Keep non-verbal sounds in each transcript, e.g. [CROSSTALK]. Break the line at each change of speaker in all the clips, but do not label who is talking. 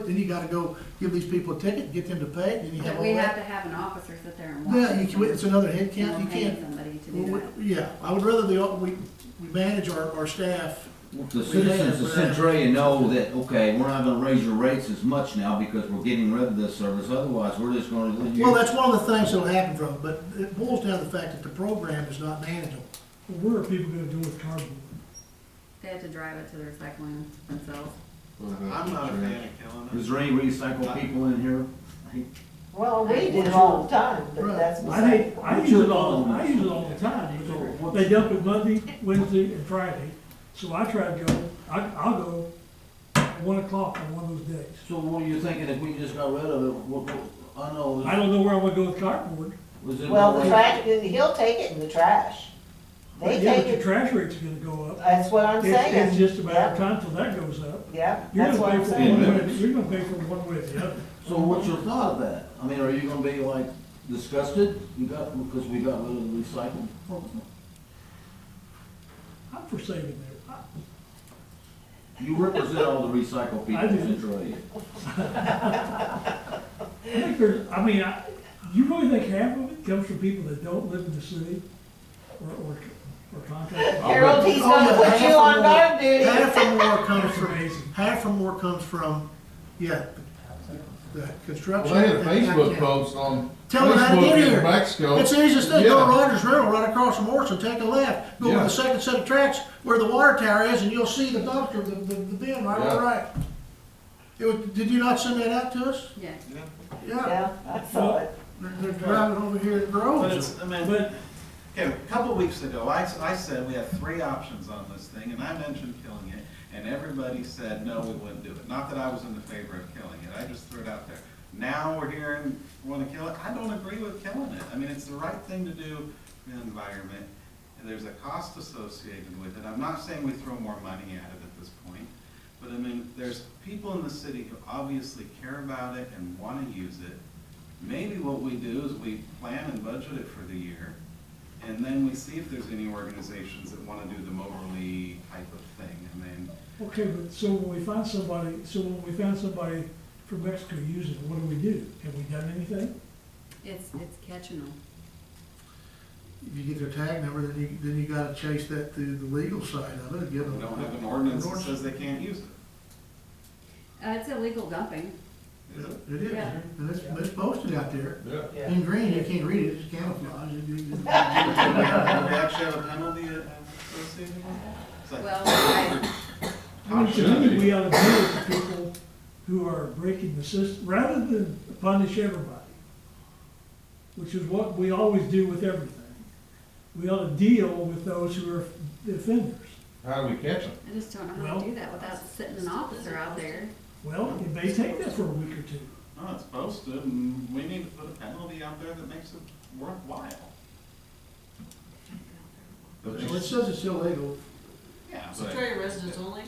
Then you gotta go give these people a ticket, get them to pay, it, then you have
But
all
we have to
that.
have an officer sit there and watch.
Yeah, you can, it's another head
And
count,
we're
you
paying
can't.
somebody to
we-
do
we-
that.
Yeah, I would rather the, uh, we, we manage our, our staff.
The citizens of Centralia know that, okay, we're not gonna raise your rates as much now because we're getting rid of this service, otherwise we're just gonna let you.
Well, that's one of the things that'll happen from it, but it boils down to the fact that the program is not manageable.
Well, What are people gonna do with cardboard?
They have to drive it to the recycling themselves.
I'm not a fan of killing them.
Is there any recycled people in here?
Well, we do it all the time, but that's
I
beside
hate, I use it all, I use it all the time, you know, they dump it Monday, Wednesday, and Friday, so I try to go, I, I'll go at one o'clock on one of those days.
So what are you thinking if we just got rid of it, what, what, I know,
I don't know where I'm gonna go with cardboard,
was it?
Well, the trash, he'll take it in the trash. They
yeah,
take
but your
it,
trash rate's gonna go up.
that's what I'm
It's,
saying.
it's just a matter of
Yep,
time till that goes up.
Yep,
You're
that's what
gonna
I'm
pay for
saying.
saying.
one way, you're gonna pay for one way or the other.
So what's your thought of that? I mean, are you gonna be like disgusted, you got, because we got rid of the recycled?
I'm for saving there,
You represent all the recycled people
I do.
in Centralia.
I think there's, I mean, I, you really think half of it comes from people that don't live in the city or, or, or contract?
Harold, he's gonna
Oh, yeah,
put you
half or
on
more-
guard duty.
Half or
[LAUGHS]
more comes
That's
from,
amazing.
half or more comes from, yeah, the construction.
Well, they had a
and-
Facebook post on
Tell them how to get
Facebook in
here.
Mexico.
It's the easiest thing, go
Yeah.
to Rogers Rental right across from Morrison, take a left, go to
Yeah.
the second set of tracks where the water tower is, and you'll see the dumpster, the, the, the bin right on the
Yeah.
right. It was, did you not send that out to us?
Yeah.
Yeah,
Yeah, I saw it.
they're, they're driving over here at
But
Groves.
it's, I mean,
But
okay, a couple weeks ago, I, s- I said we have three options on this thing, and I mentioned killing it, and everybody said, no, we wouldn't do it. Not that I was in the favor of killing it, I just threw it out there. Now we're hearing, wanna kill it, I don't agree with killing it. I mean, it's the right thing to do for the environment, and there's a cost associated with it. I'm not saying we throw more money at it at this point, but I mean, there's people in the city who obviously care about it and wanna use it. Maybe what we do is we plan and budget it for the year, and then we see if there's any organizations that wanna do the Moberly type of thing, and then,
Okay, but so when we find somebody, so when we found somebody from Mexico using, it, what do we do? Have we done anything?
It's, it's catching them.
If you get their tag number, then you, then you gotta chase that through the legal side of it, and give them.
we don't have an ordinance that says they can't use it.
Uh, it's illegal dumping.
Is it?
It is,
Yeah.
and it's, it's posted out there.
Yeah.
Yeah.
Mm.
In green, you can't read it, it's camouflage. It- it-
Do we actually have a penalty uh, associated with that? It's like-
Well, I,
I mean, to
Should
me,
be.
we ought to deal with the people who are breaking the system, rather than punish everybody, which is what we always do with everything. We ought to deal with those who are the offenders.
How do we catch them?
I just don't know how to do that without sitting an officer out there.
Well, it may take that for a week or two.
No, it's posted, and we need to put a penalty out there that makes it worthwhile. But
Well, it
it's-
says it's illegal,
Yeah, but
Centaria residents only?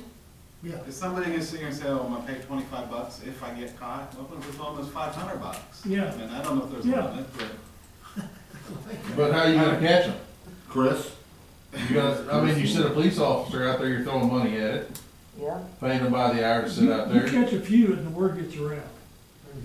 yeah.
if somebody is sitting here and say, oh, I'm gonna pay twenty-five bucks if I get caught, well, then it's almost five hundred bucks.
Yeah.
And I don't know if there's
Yeah.
a limit, but.
But how you gonna catch them?
Chris?
You gotta, I mean, you send a police officer out there, you're throwing money at it,
Yeah,
paying them by the hour to sit out
You
there.
catch a few and the word gets around.
It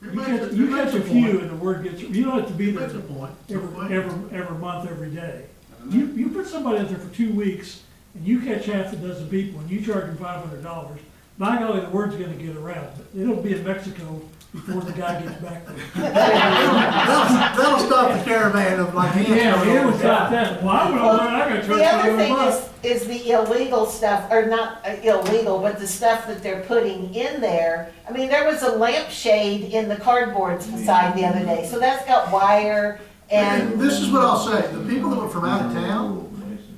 You
makes
catch,
it
you
makes
catch a
point.
few and the word gets, you don't have to be
It
there
makes a point.
every, every, every month, every day. You, you put somebody out there for two weeks, and you catch half a dozen people, and you charge them five hundred dollars, by golly, the word's gonna get around, it'll be in Mexico before the guy gets back there.
That'll, that'll stop the caravan of like.
Yeah, it was like that, well, I would,
Well,
I gotta charge
The other
five hundred
thing
bucks.
is, is the illegal stuff, or not uh, illegal, but the stuff that they're putting in there. I mean, there was a lampshade in the cardboard
Mm.
side the other day, so that's got wire
And
and
this is what I'll say, the people that were from out of town,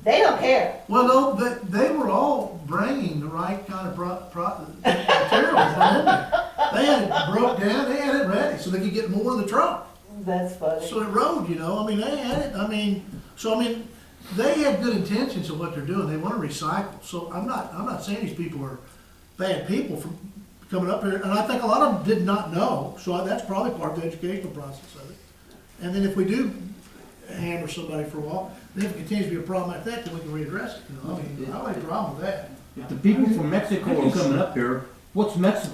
they don't care.
well, no, they, they were all bringing the right kind of pro, pro, materials. behind them. They had it broke down, they had it ready, so they could get more in the truck.
That's funny.
So it rode, you know, I mean, they had it, I mean, so I mean, they had good intentions of what they're doing, they wanna recycle, so I'm not, I'm not saying these people are bad people for coming up here, and I think a lot of them did not know, so I- that's probably part of the educational process of it. And then if we do hammer somebody for a while, then if it continues to be a problem like that, then we can readdress it, you know, I mean, I don't have a problem with that.
If the people from Mexico are coming up here, what's Mexico